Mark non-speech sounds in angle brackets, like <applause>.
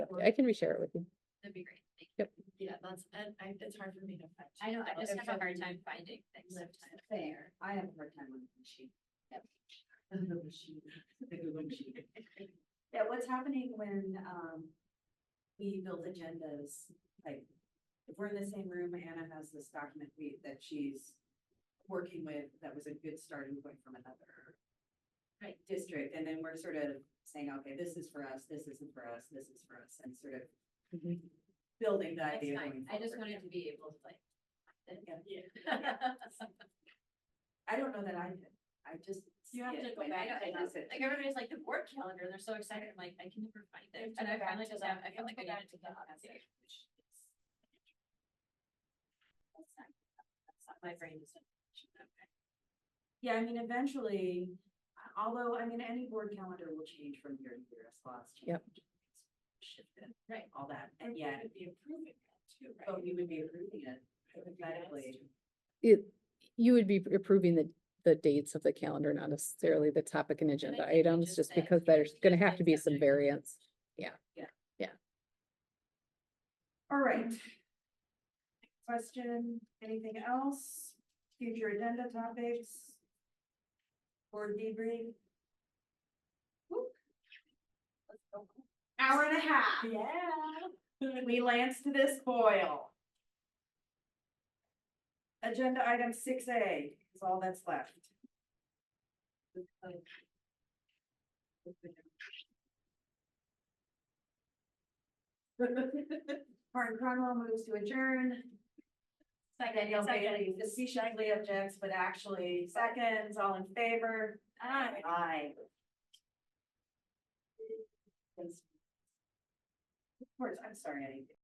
I can reshare it with you. That'd be great. Thank Yep. you. Yeah, that's, and I, it's hard for me to find. I know, I just have a hard time finding things Lift there. I have a hard time with the machine. The machine, the Google machine. <laughs> Yeah, what's happening when, um, we build agendas, like, if we're in the same room, Anna has this document we, that she's working with, that was a good starting point from another Right. district, and then we're sort of saying, okay, this is for us, this isn't for us, this is for us, and sort of Mhm. building the That's Mm-hmm. idea. fine. going I just forward. wanted to be able to like. Yeah. <laughs> Yeah. I don't know that I, did. I just. You have see it to go when I back and notice it. like everybody's like the board calendar, they're so excited, I'm like, I can never find it. And I finally just have, I feel like I needed to. go back. That's not- that's not- My brain is. Yeah, I mean, eventually, although, I mean, any board calendar will change from year to year as laws change. Yep. Shifted, Right. all that, and yeah, would be approving that too, but we would be approving it hypothetically. It, you would be approving the, the dates of the calendar, not necessarily the topic and agenda think we items, just just said because there's gonna have to be some subject. variance. All right. Question, anything else? Future agenda topics? Board debrief? Whoop. Hour and a half. Yeah. We lanced this boil. Agenda item six A is all that's left. <laughs> Martin Cronwell moves to adjourn. Danielle Bailey officially objects, but actually seconds, all in favor? Aye. Aye. Of course, I'm sorry, I